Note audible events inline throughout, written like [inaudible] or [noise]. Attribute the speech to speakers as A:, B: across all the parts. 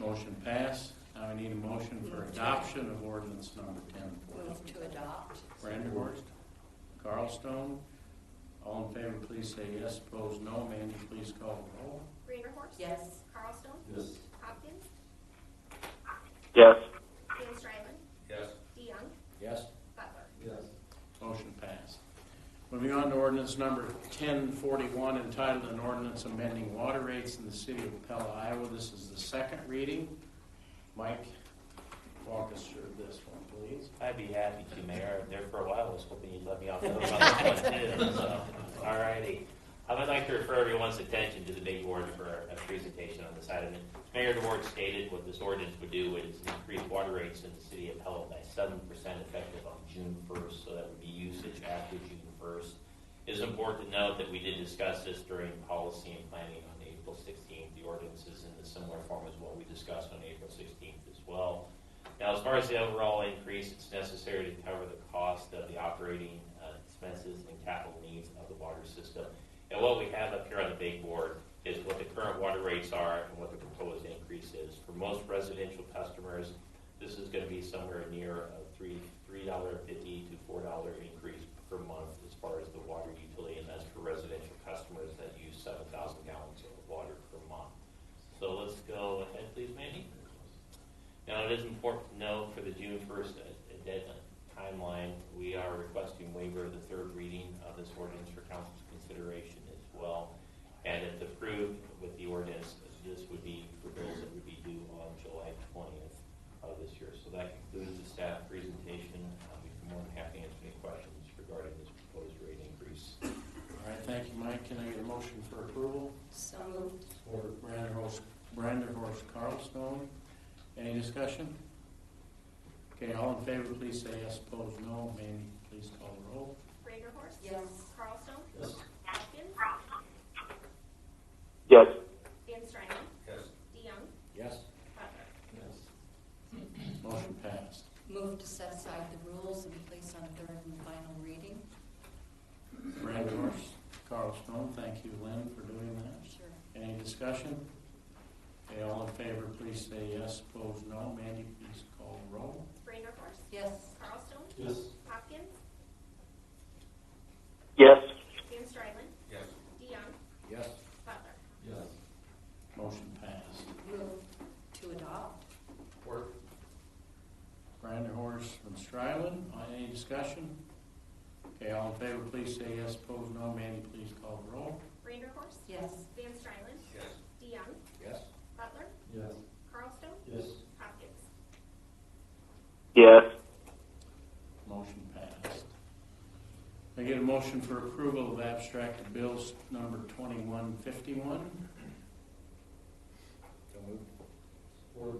A: Motion passed. Now I need a motion for adoption of ordinance number ten forty.
B: Move to adopt.
A: Brandenburg, Carlstone. All in favor, please say yes. Opposed, no. Mandy, please call the roll.
C: Braderhorst?
B: Yes.
C: Carlstone?
A: Yes.
C: Hopkins?
D: yes,
C: Dan Stryland?
E: Yes.
C: DeYoung?
A: Yes.
C: Butler?
E: Yes.
A: Motion passed. Moving on to ordinance number 1041, entitled an ordinance amending water rates in the city of Pella, Iowa. This is the second reading. Mike, walk us through this one, please.
F: I'd be happy to, Mayor. There for a while, I was hoping you'd let me off the hook on this one too, so, all righty. I would like to refer everyone's attention to the big board for a presentation on this item. Mayor DeWard stated what this ordinance would do is increase water rates in the city of Pella by seven percent effective on June first, so that would be usage after June first. It is important to note that we did discuss this during policy and planning on April sixteenth. The ordinance is in a similar form as what we discussed on April sixteenth as well. Now, as far as the overall increase, it's necessary to cover the cost of the operating uh, expenses and capital needs of the water system. And what we have up here on the big board is what the current water rates are and what the proposed increase is. For most residential customers, this is going to be somewhere near a three, three dollar fifty to four dollar increase per month as far as the water utility, and that's for residential customers that use seven thousand gallons of water per month. So let's go ahead, please, Mandy. Now, it is important to note for the June first deadline timeline, we are requesting waiver of the third reading of this ordinance for council's consideration as well. And if approved with the ordinance, this would be for bills that would be due on July twentieth of this year. So that concludes the staff presentation. I'll be more than happy to answer any questions regarding this proposed rate increase.
A: All right, thank you, Mike. Can I get a motion for approval?
B: So moved.
A: Or Branderhorst, Branderhorst Carlstone. Any discussion? Okay, all in favor, please say yes. Opposed, no. Mandy, please call the roll.
C: Braderhorst?
B: Yes.
C: Carlstone?
A: Yes.
C: Hopkins?
D: yes,
C: Dan Stryland?
E: Yes.
C: DeYoung?
A: Yes.
C: Butler?
E: Yes.
A: Motion passed.
B: Move to set aside the rules and place on third and final reading.
A: Branderhorst Carlstone, thank you, Lynn, for doing that.
B: Sure.
A: Any discussion? Okay, all in favor, please say yes. Opposed, no. Mandy, please call the roll.
C: Braderhorst?
B: Yes.
C: Carlstone?
E: Yes.
C: Hopkins?
D: yes,
C: Dan Stryland?
E: Yes.
C: DeYoung?
A: Yes.
C: Butler?
E: Yes.
A: Motion passed.
B: Move to adopt.
E: Work.
A: Branderhorst and Stryland, uh, any discussion? Okay, all in favor, please say yes. Opposed, no. Mandy, please call the roll.
C: Braderhorst?
B: Yes.
C: Dan Stryland?
E: Yes.
C: DeYoung?
A: Yes.
C: Butler?
E: Yes.
C: Carlstone?
E: Yes.
C: Hopkins?
D: yes,
A: Motion passed. Can I get a motion for approval of abstracted bills number twenty-one fifty-one?
E: Work.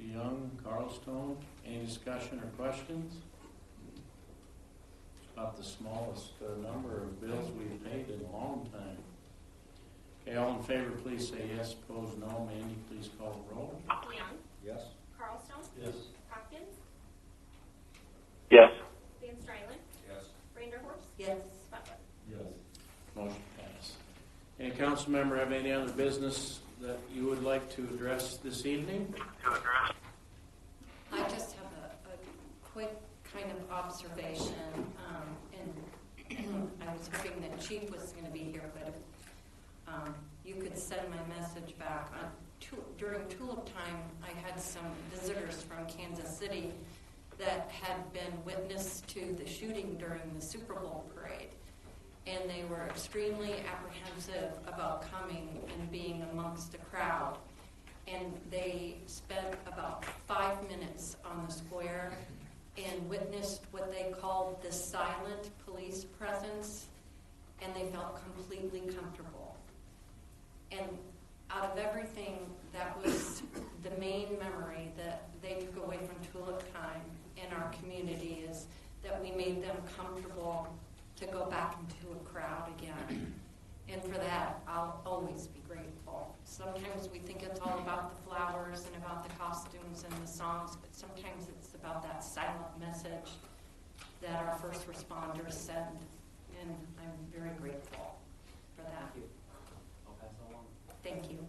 A: DeYoung, Carlstone, any discussion or questions? It's About the smallest uh, number of bills we've paid in a long time. Okay, all in favor, please say yes, opposed no. Mandy, please call the roll.
C: DeYoung?
E: Yes.
C: Carlstone?
E: Yes.
C: Hopkins?
D: yes,
C: Dan Stryland?
E: Yes.
C: Braderhorst?
B: Yes.
C: Butler?
E: Yes.
A: Motion passed. Any council member have any other business that you would like to address this evening?
B: I just have a, a quick kind of observation, um, and [clears throat] I was hoping that Chief was gonna be here, but if, um, you could send my message back. On Tu- During tulip time, I had some visitors from Kansas City that had been witness to the shooting during the Super Bowl parade. And they were extremely apprehensive about coming and being amongst the crowd and they spent about five minutes on the square and witnessed what they called the silent police presence, and they felt completely comfortable. And out of everything, that was the main memory that they took away from Tulip Time in our community is that we made them comfortable to go back into a crowd again. And for that, I'll always be grateful. Sometimes we think it's all about the flowers and about the costumes and the songs, but sometimes it's about that silent message that our first responders send. And I'm very grateful for that.
F: I'll pass along.
B: Thank you.